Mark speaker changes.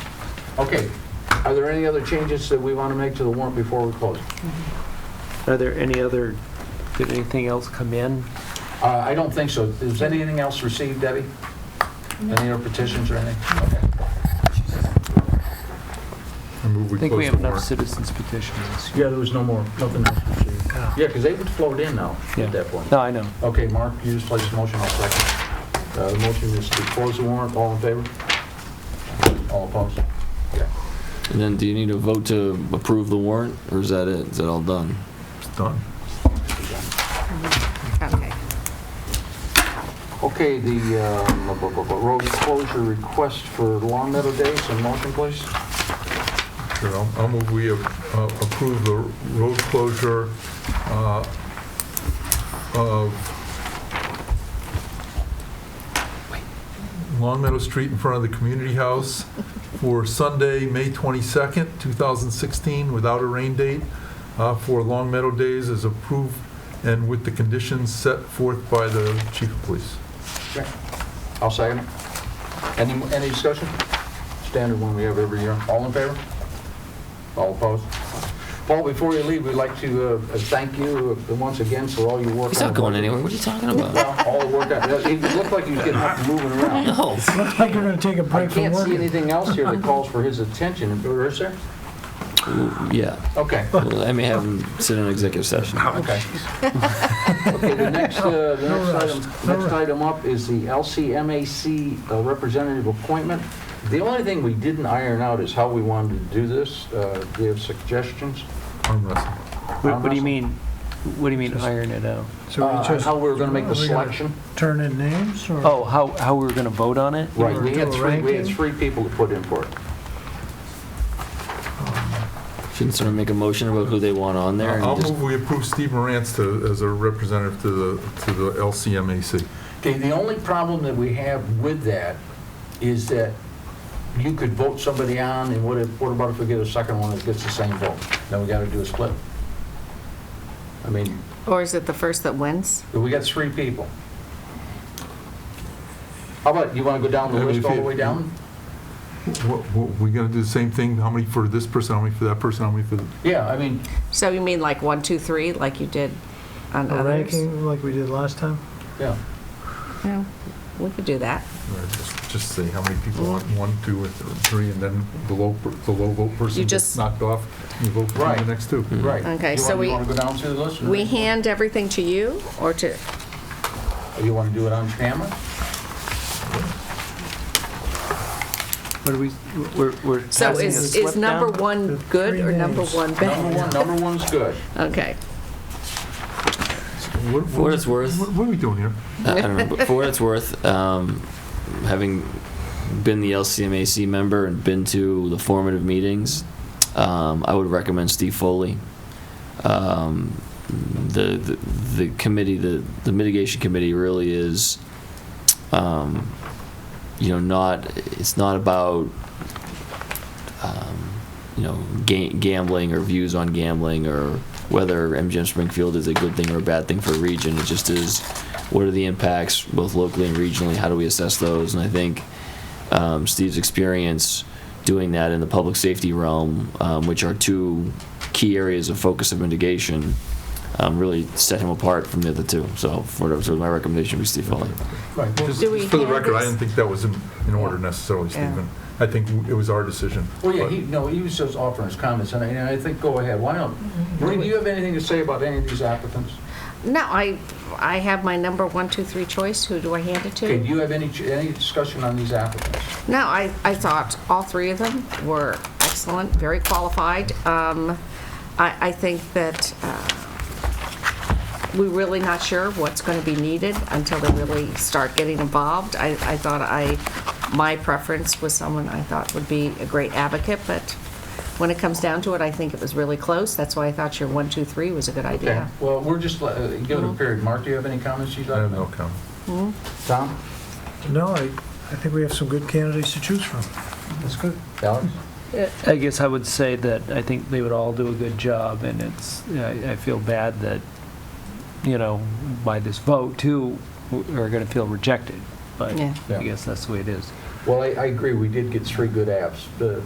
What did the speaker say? Speaker 1: Okay, are there any other changes that we want to make to the warrant before we close?
Speaker 2: Are there any other, did anything else come in?
Speaker 1: Uh, I don't think so. Is anything else received, Debbie? Any other petitions or anything? Okay.
Speaker 3: I move
Speaker 2: I
Speaker 3: we
Speaker 2: think we
Speaker 3: close
Speaker 2: have
Speaker 3: the
Speaker 2: enough
Speaker 3: warrant.
Speaker 2: citizens petitions this year.
Speaker 1: Yeah, there was no more, nothing else received. Yeah, because they would float in now
Speaker 2: Yeah.
Speaker 1: at that point.
Speaker 2: No, I know.
Speaker 1: Okay, Mark, you just placed a motion, I'll second. Uh, The motion is to close the warrant, all in favor? All opposed? Okay.
Speaker 4: And then do you need a vote to approve the warrant, or is that it? Is that all done?
Speaker 3: It's done.
Speaker 5: Okay.
Speaker 1: Okay, the uh, bu- bu- bu- road closure request for Long Meadow Days, a motion, please?
Speaker 3: Sure, I'll- I'll move we uh, approve the road closure uh, of Long Meadow Street in front of the community house for Sunday, May 22nd, 2016, without a rain date, uh, for Long Meadow Days as approved and with the conditions set forth by the chief of police.
Speaker 1: I'll second it. Any, any discussion? Standard one we have every year. All in favor? All opposed? Paul, before you leave, we'd like to uh, thank you uh, once again for all your work.
Speaker 4: He's not going anywhere. What are you talking about?
Speaker 1: Well, All the work that, it looked like he was getting up and moving around.
Speaker 4: No.
Speaker 6: Looks like we're gonna take a
Speaker 1: I
Speaker 6: break from
Speaker 1: can't see
Speaker 6: work.
Speaker 1: anything else here that calls for his attention. Is there?
Speaker 4: Yeah.
Speaker 1: Okay.
Speaker 4: Well, I may have him sit in executive session.
Speaker 1: Okay. Okay, the next, uh, the next item, next item up is the LCMAC uh, representative appointment. The only thing we didn't iron out is how we wanted to do this. Uh, Do you have suggestions?
Speaker 3: Arm wrestle.
Speaker 2: What what do you mean, what do you mean iron it out?
Speaker 6: So we
Speaker 1: Uh,
Speaker 6: just
Speaker 1: How we were going to make the
Speaker 6: Are we gonna-
Speaker 1: selection?
Speaker 6: turn in names or?
Speaker 2: Oh, how, how we were going to vote on it?
Speaker 1: Right,
Speaker 6: were
Speaker 1: we
Speaker 6: doing
Speaker 1: had
Speaker 6: a
Speaker 1: three, we had
Speaker 6: ranking?
Speaker 1: three people to put in for it.
Speaker 4: Shouldn't sort of make a motion about who they want on there
Speaker 3: I'll
Speaker 4: and just,
Speaker 3: move we approve Steve Morantz to, as a representative to the, to the LCMAC.
Speaker 1: Okay, the only problem that we have with that is that you could vote somebody on, and what if, what about if we get a second one that gets the same vote? Then we got to do a split. I mean,
Speaker 5: Or is it the first that wins?
Speaker 1: we got three people. How about, you want to go down the
Speaker 3: Yeah, but
Speaker 1: list
Speaker 3: if
Speaker 1: all the
Speaker 3: you-
Speaker 1: way down?
Speaker 3: What, what, we gonna do the same thing, how many for this person, how many for that person, how many for, the-
Speaker 1: Yeah, I mean,
Speaker 5: So you mean like one, two, three, like you did on
Speaker 6: A
Speaker 5: others?
Speaker 6: ranking like we did last time?
Speaker 1: yeah.
Speaker 5: No, we could do that.
Speaker 3: or just- just say how many people want, one, two, and th- three, and then the low, per- the low vote person
Speaker 5: You
Speaker 3: gets
Speaker 5: just-
Speaker 3: knocked off, you vote for
Speaker 1: Right.
Speaker 3: the next two.
Speaker 1: Right.
Speaker 5: Okay,
Speaker 1: You
Speaker 5: so
Speaker 1: wanna-
Speaker 5: we-
Speaker 1: You want to go down through the list? or-
Speaker 5: We hand everything to you or to,
Speaker 1: or You want to do it on camera?
Speaker 2: What are we, we're, we're
Speaker 5: so
Speaker 2: passing a
Speaker 5: is, is
Speaker 2: slip
Speaker 5: number
Speaker 2: down?
Speaker 5: one good
Speaker 6: Three
Speaker 5: or number
Speaker 6: names.
Speaker 5: one
Speaker 1: Number
Speaker 5: bad?
Speaker 1: one, number one's good.
Speaker 5: Okay.
Speaker 3: What-
Speaker 4: for what it's worth,
Speaker 3: What what are we doing here?
Speaker 4: I I don't know, but for what it's worth, um, having been the LCMAC member and been to the formative meetings, um, I would recommend Steve Foley. Um, the, the the committee, the the mitigation committee, really is, um, you know, not it's not about. Um, you know, ga- gambling or views on gambling or whether MGM Springfield is a good thing or a bad thing for a region. It just is what are the impacts both locally and regionally? How do we assess those? And I think um, Steve's experience doing that in the public safety realm, um, which are two key areas of focus of mitigation, um, really set him apart from the other two. So, for, so my recommendation would be Steve Foley.
Speaker 1: Right.
Speaker 3: Just
Speaker 5: Do we
Speaker 3: just for the
Speaker 5: hand
Speaker 3: record, I
Speaker 5: this-
Speaker 3: didn't think that was in, in order necessarily,
Speaker 5: Yeah.
Speaker 3: Stephen. I think w- it was our decision.
Speaker 1: Well, yeah,
Speaker 3: but-
Speaker 1: he, no, he was just offering his comments, and I, and I think, go ahead, why don't, Maureen, do you have anything to say about any of these applicants?
Speaker 5: No, I, I have my number one, two, three choice. Who do I hand it
Speaker 1: Okay,
Speaker 5: to?
Speaker 1: do you have any, ch- any discussion on these applicants?
Speaker 5: No, I, I thought all three of them were excellent, very qualified. Um, I, I think that uh, we're really not sure what's going to be needed until they really start getting involved. I, I thought I, my preference was someone I thought would be a great advocate, but when it comes down to it, I think it was really close. That's why I thought your one, two, three was a good
Speaker 1: Okay,
Speaker 5: idea.
Speaker 1: well, we're just, uh, give
Speaker 5: Mm-hmm.
Speaker 1: it a period. Mark, do you have any comments you'd
Speaker 3: I
Speaker 1: like to
Speaker 3: have
Speaker 1: make?
Speaker 3: no comment.
Speaker 5: Hmm?
Speaker 1: Tom?
Speaker 6: No, I, I think we have some good candidates to choose from. That's good.
Speaker 1: Alex?
Speaker 2: I guess I would say that I think they would all do a good job, and it's, I I feel bad that, you know, by this vote, two are going to feel rejected, but
Speaker 5: Yeah.
Speaker 2: I guess that's the way it is.
Speaker 1: Well, I, I agree, we did get three good apps, uh,